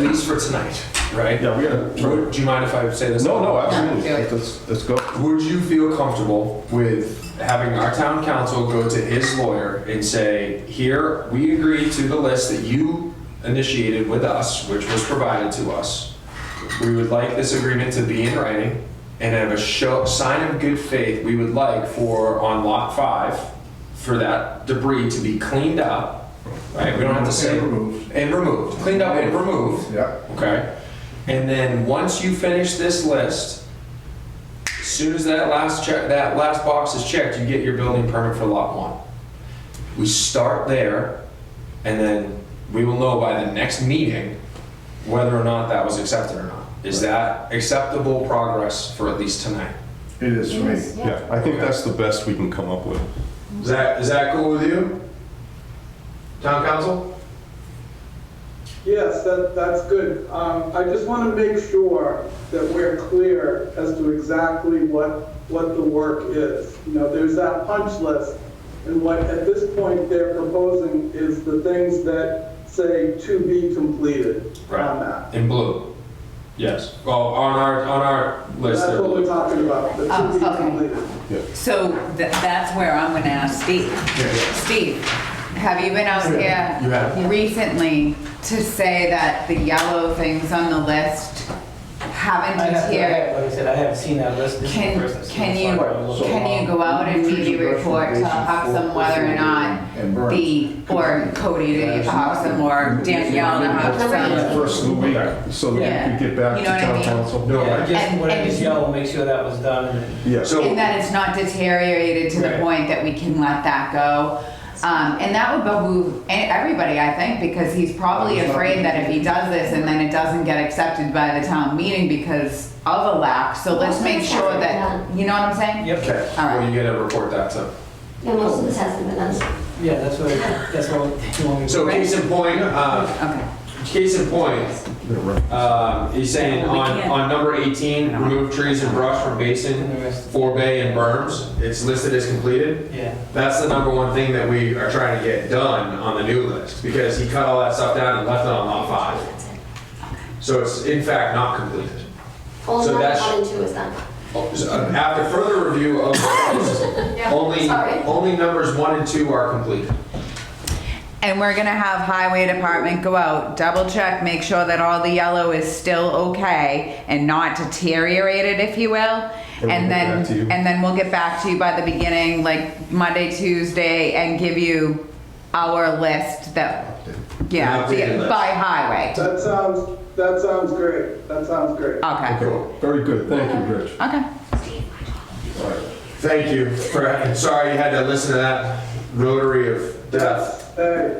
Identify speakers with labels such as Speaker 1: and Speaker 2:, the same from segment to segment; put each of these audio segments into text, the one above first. Speaker 1: least for tonight, right?
Speaker 2: Yeah, we gotta. try-
Speaker 1: Would, do you mind if I say this?
Speaker 2: No, no, absolutely.
Speaker 3: Yeah.
Speaker 2: Let's, let's go.
Speaker 1: Would you feel comfortable with having our town council go to his lawyer and say, here, we agree to the list that you initiated with us, which was provided to us. We would like this agreement to be in writing and have a show, sign of good faith we would like for, on lot five, for that debris to be cleaned up, right? We don't have to say.
Speaker 2: And removed.
Speaker 1: And removed, cleaned up and removed.
Speaker 2: Yeah.
Speaker 1: Okay. And then once you finish this list, as soon as that last check, that last box is checked, you get your building permit for lot one. We start there, and then we will know by the next meeting whether or not that was accepted or not. Is that acceptable progress for at least tonight?
Speaker 2: It is for me.
Speaker 3: Yes, yeah.
Speaker 2: Yeah, I think that's the best we can come up with.
Speaker 1: Is that, is that cool with you? Town council?
Speaker 4: Yes, that, that's good. Um, I just want to make sure that we're clear as to exactly what, what the work is. You know, there's that punch list, and what, at this point, they're proposing is the things that say to be completed on that.
Speaker 1: In blue? Yes. Well, on our, on our list
Speaker 4: That's
Speaker 1: there.
Speaker 4: what we're talking about, the to be
Speaker 3: Oh, okay.
Speaker 4: completed.
Speaker 2: Yeah.
Speaker 3: So th- that's where I'm gonna ask Steve. Steve, have you been out
Speaker 1: You
Speaker 3: here
Speaker 1: have.
Speaker 3: recently to say that the yellow things on the list haven't
Speaker 5: I have, I
Speaker 3: deteriored?
Speaker 5: have, like I said, I haven't seen that list. This is the
Speaker 3: Can,
Speaker 5: first I've seen
Speaker 3: can
Speaker 5: it,
Speaker 3: you,
Speaker 5: so um, I don't know.
Speaker 3: can you go out and maybe report to Hoxham whether or not the, or Cody to Hoxham or Danielle to Hoxham?
Speaker 2: First of the week, so that we could
Speaker 3: Yeah.
Speaker 2: get back to
Speaker 3: You know what I
Speaker 2: town
Speaker 3: mean?
Speaker 2: council.
Speaker 1: No, I
Speaker 5: Yeah,
Speaker 1: get-
Speaker 5: just
Speaker 3: And-
Speaker 5: whatever
Speaker 3: and-
Speaker 5: is yellow, make sure that was done. and-
Speaker 2: Yes.
Speaker 1: So.
Speaker 3: And that it's not deteriorated to the
Speaker 1: Right.
Speaker 3: point that we can let that go. Um, and that would behoove e- everybody, I think, because he's probably afraid that if he does this and then it doesn't get accepted by the town meeting because of a lack, so let's make sure that, you know what I'm saying?
Speaker 5: Yep,
Speaker 1: Okay,
Speaker 3: All right.
Speaker 1: well, you gotta report that to.
Speaker 6: Yeah, most of this hasn't been done.
Speaker 5: yeah, that's what, that's what you want me to.
Speaker 1: So case in point, uh,
Speaker 3: Okay.
Speaker 1: case in point, uh, he's saying on, on number 18, remove trees and brush from
Speaker 5: And
Speaker 1: basin,
Speaker 5: the rest-
Speaker 1: forebay and berms. It's listed as completed.
Speaker 5: Yeah,
Speaker 1: That's the number one thing that we are trying to get done on the new list because he cut all that stuff down and left it on lot five. So it's in fact not completed.
Speaker 6: Only
Speaker 1: So
Speaker 6: number
Speaker 1: that's-
Speaker 6: one and two is done.
Speaker 1: After further review of the list, only,
Speaker 6: sorry.
Speaker 1: only numbers one and two are completed.
Speaker 3: And we're gonna have highway department go out, double check, make sure that all the yellow is still okay and not deteriorated, if you will.
Speaker 2: And we'll
Speaker 3: And
Speaker 2: get
Speaker 3: then,
Speaker 2: back to you.
Speaker 3: and then we'll get back to you by the beginning, like Monday, Tuesday, and give you our list that, yeah,
Speaker 1: Updated
Speaker 3: the-
Speaker 1: list.
Speaker 3: by highway.
Speaker 4: That sounds, that sounds great. That sounds great.
Speaker 3: Okay,
Speaker 2: Okay, very good. Thank you, Rich.
Speaker 3: okay.
Speaker 2: All right.
Speaker 1: Thank you for, sorry you had to listen to that rotary of death,
Speaker 4: Hey,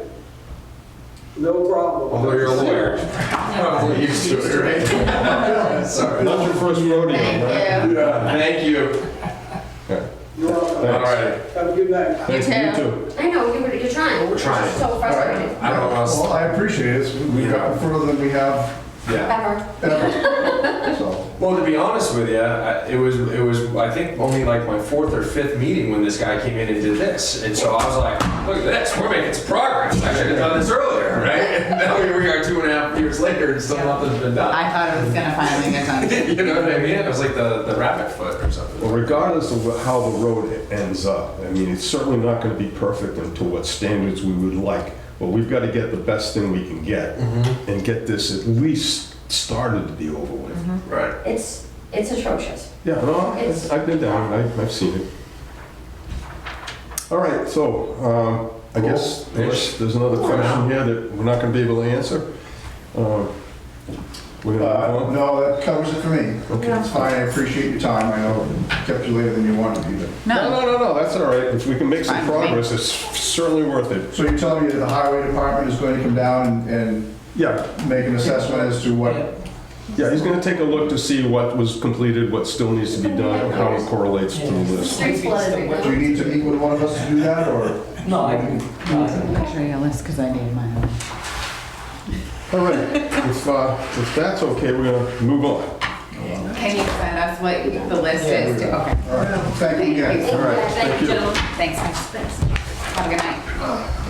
Speaker 4: no problem.
Speaker 1: although you're a lawyer. Probably used to it, right? Sorry.
Speaker 2: Not your first rodeo, right?
Speaker 3: Thank you.
Speaker 1: Thank you.
Speaker 4: You're welcome.
Speaker 1: All right,
Speaker 4: Have a good night.
Speaker 3: You
Speaker 2: Thank
Speaker 3: too.
Speaker 6: I know, you're, you're trying. We're
Speaker 1: trying.
Speaker 6: So frustrated.
Speaker 1: I don't know,
Speaker 7: Well, I appreciate it. We've gotten further than we have
Speaker 1: yeah.
Speaker 6: Ever.
Speaker 7: ever. So,
Speaker 1: Well, to be honest with you, I- it was, it was, I think, only like my fourth or fifth meeting when this guy came in and did this. And so I was like, look at this, we're making some progress. I should have done this earlier, right? And now here we are two and a half years later and still nothing's been done.
Speaker 3: I thought it was gonna finally get done.
Speaker 1: You know what I mean? It was like the, the rabbit foot or
Speaker 2: Well,
Speaker 1: something.
Speaker 2: regardless of how the road ends up, I mean, it's certainly not going to be perfect and to what standards we would like, but we've got to get the best thing we can get and get this at least started to be over with.
Speaker 1: Right.
Speaker 6: It's, it's atrocious.
Speaker 2: Yeah, no,
Speaker 6: It's-
Speaker 2: I- I've been down, I- I've seen it. All right, so um, I guess
Speaker 1: Cool.
Speaker 2: there's there's another question here that we're not going to be able to answer. Um, We're going to
Speaker 7: uh,
Speaker 2: move on.
Speaker 7: no, that covers it for me. It's fine, I appreciate your time. I know it kept you later than you wanted to be, but.
Speaker 2: No,
Speaker 3: No,
Speaker 2: no, no, no, that's all right. If we can make some
Speaker 3: Fine with me.
Speaker 2: progress, it's certainly worth it.
Speaker 7: So you're telling me that the highway department is going to come down and
Speaker 2: Yeah,
Speaker 7: and make an assessment as to what?
Speaker 5: yeah.
Speaker 2: Yeah, he's gonna take a look to see what was completed, what still needs to be done, and how it correlates to the list.
Speaker 6: Streets flooded right now.
Speaker 7: Do you need to meet with one of us to do that, or?
Speaker 5: No, I can, no, I can-
Speaker 3: make sure you list, cause I need mine.
Speaker 2: All right, if, uh, if that's okay, we're gonna move on.
Speaker 3: Can you send us what the list is? to- Okay,
Speaker 7: All right, thank you again.
Speaker 3: Thank you.
Speaker 2: All right,
Speaker 6: Yeah,
Speaker 2: thank you.
Speaker 6: gentlemen.
Speaker 3: thanks, guys. Have a good night.